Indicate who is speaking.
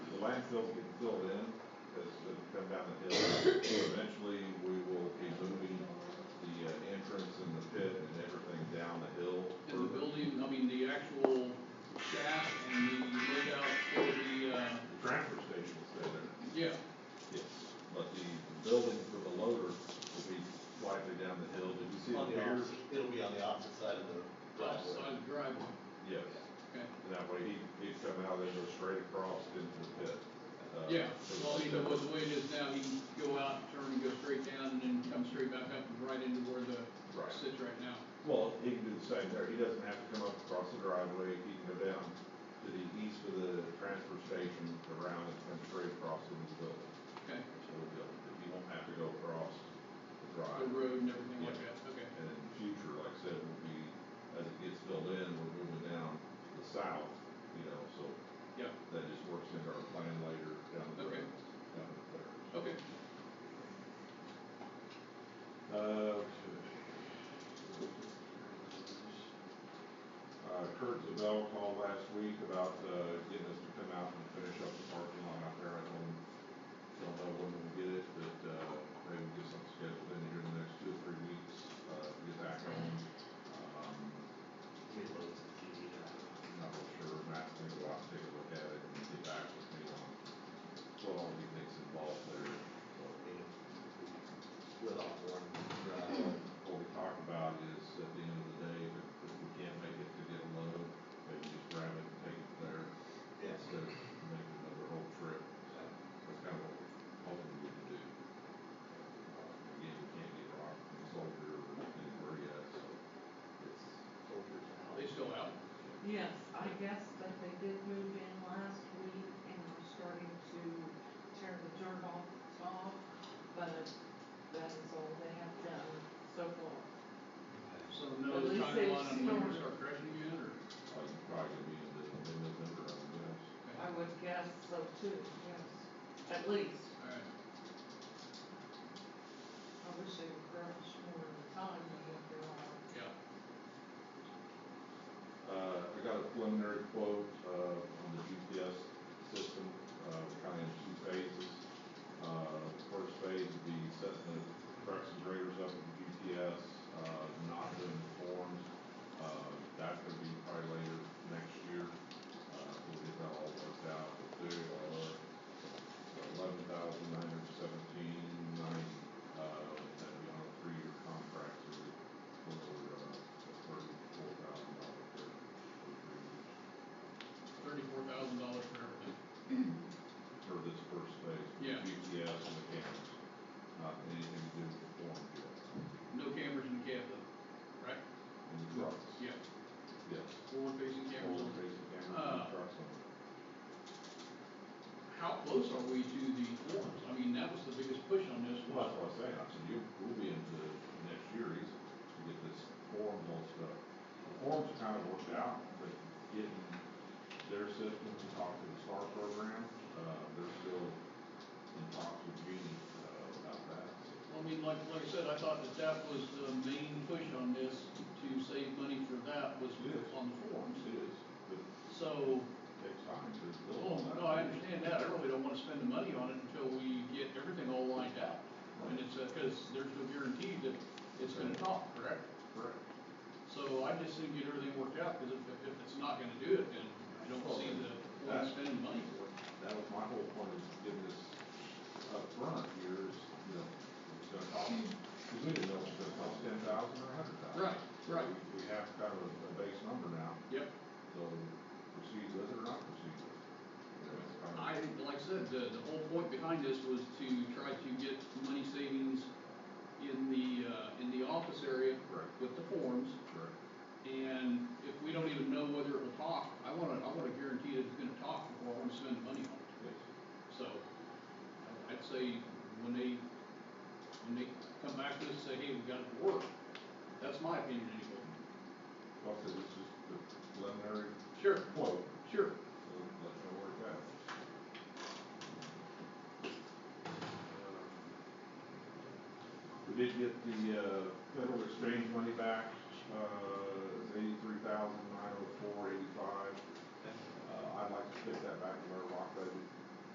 Speaker 1: landfill get filled in, as we come down the hill, eventually we will be moving the uh, entrance and the pit and everything down the hill.
Speaker 2: And the
Speaker 1: further.
Speaker 2: building, I mean, the actual shaft and the layout for the, uh,
Speaker 1: The transfer station will stay there,
Speaker 2: yeah,
Speaker 1: yes, but the building for the loader will be slightly down the hill. Did you see the
Speaker 3: On the
Speaker 1: piers?
Speaker 3: opposite, it'll be on the opposite side of the
Speaker 2: opposite side of
Speaker 3: driveway.
Speaker 2: the driveway,
Speaker 1: Yes,
Speaker 2: okay.
Speaker 1: and that way he, he'd come out and go straight across into the pit. uh,
Speaker 2: Yeah,
Speaker 1: for the
Speaker 2: well, you know,
Speaker 1: step.
Speaker 2: with the way it is now, he can go out, turn, go straight down, and then come straight back up and right into where the
Speaker 1: Right.
Speaker 2: sits right now.
Speaker 1: Well, he can do the same there, he doesn't have to come up across the driveway, he can go down to the east of the transfer station, around and come straight across in the building.
Speaker 2: Okay,
Speaker 1: So he'll, he won't have to go across the
Speaker 2: the
Speaker 1: drive.
Speaker 2: road and everything like
Speaker 1: Yeah.
Speaker 2: that, okay.
Speaker 1: And in the future, like I said, will be, as it gets filled in, we're moving down to the south, you know, so
Speaker 2: Yeah,
Speaker 1: that just works into our plan later down the
Speaker 2: Okay.
Speaker 1: road. down the road.
Speaker 2: okay.
Speaker 1: Uh, Uh, Kurt Zabel called last week about, uh, getting us to come out and finish up the parking lot out there, I told him, don't know when we'll get it, but, uh, maybe we'll get something scheduled in here in the next two or three weeks, uh, to get back on. Um, I'm not real sure, Matt's gonna go out and take a look at it and get back with me on what all he thinks involved there, so.
Speaker 3: Split off one drive.
Speaker 1: What we talk about is, at the end of the day, if, if we can't make it to get a load, maybe just grab it and take it there,
Speaker 3: Yes.
Speaker 1: instead of making another whole trip, that's kind of what we're hoping we can do. Uh, Again, we can't get rock from the soldier or anywhere yet, so it's, uh,
Speaker 2: Are they still out?
Speaker 4: Yes, I guess that they did move in last week and are starting to tear the dirt off the top, but that is all they have done so far.
Speaker 2: So
Speaker 4: At
Speaker 2: no
Speaker 4: least
Speaker 2: timeline
Speaker 4: they've
Speaker 2: on when we start
Speaker 4: stored.
Speaker 2: crushing yet, or?
Speaker 1: uh, you probably gonna be in the mid-November, I would guess.
Speaker 4: I would guess so too, yes, at least.
Speaker 2: All right,
Speaker 4: I wish they would grant us more of the time than what they are.
Speaker 2: yeah,
Speaker 1: Uh, I got a preliminary quote, uh, on the GPS system, uh, kind of in two phases. Uh, first phase would be setting the trucks and graders up with GPS, uh, not doing the forms. Uh, that's gonna be probably later next year, uh, we'll get that all worked out, we'll do, uh, eleven thousand nine hundred seventeen ninety, uh, that'd be on a three-year contract, so we for uh, thirty-four thousand dollars for for three years,
Speaker 2: thirty-four thousand dollars for everything.
Speaker 1: for this first phase. with
Speaker 2: Yeah.
Speaker 1: GPS and the cameras, not anything to do with the form yet,
Speaker 2: No cameras in the cab though, right?
Speaker 1: and the trucks,
Speaker 2: Yeah,
Speaker 1: yes.
Speaker 2: forward-facing cameras on.
Speaker 1: Forward-facing cameras and
Speaker 2: Uh,
Speaker 1: trucks on it.
Speaker 2: How close are we to the forms? I mean, that was the biggest push on this
Speaker 1: Well,
Speaker 2: was,
Speaker 1: that's what I was saying, I said, you, we'll be into next year easy to get this form all stuff. The forms are kind of worked out, but getting their system to talk to the STAR program, uh, they're still in talks with Genie, uh, about that, so.
Speaker 2: I mean, like, like I said, I thought that that was the main push on this to save money for that was
Speaker 1: Yes.
Speaker 2: on the forms.
Speaker 1: It is, but it
Speaker 2: So,
Speaker 1: takes time to build
Speaker 2: well,
Speaker 1: on that.
Speaker 2: no, I understand that. I really don't wanna spend the money on it until we get everything all lined out. And it's, uh 'cause cause there's no guarantee that it's gonna talk, correct?
Speaker 1: Correct.
Speaker 2: So I just think get everything worked out, cause if, if it's not gonna do it, then I don't see the, why spending money for it.
Speaker 1: That was my whole point is giving this upfront here is, you know, it's gonna cost, cause we didn't know it was gonna cost ten thousand or a hundred thousand.
Speaker 2: Right, right.
Speaker 1: We have kind of a, a base number now,
Speaker 2: Yep.
Speaker 1: so proceed with it or not proceed with it. You know, it's kind of-
Speaker 2: I, like I said, the, the whole point behind this was to try to get money savings in the, uh, in the office area
Speaker 1: Correct.
Speaker 2: with the forms,
Speaker 1: Correct.
Speaker 2: and if we don't even know whether it will talk, I wanna, I wanna guarantee that it's gonna talk before I wanna spend the money on it.
Speaker 1: Yes.
Speaker 2: So, I- I'd say when they, when they come back to us, and say, hey, we got it to work, that's my opinion anyway.
Speaker 1: Well, so this is the preliminary
Speaker 2: Sure,
Speaker 1: quote,
Speaker 2: sure.
Speaker 1: so let's know where it goes. We did get the, uh, federal exchange money back, uh, eighty-three thousand nine oh four eighty-five. Uh, I'd like to stick that back in our rock budget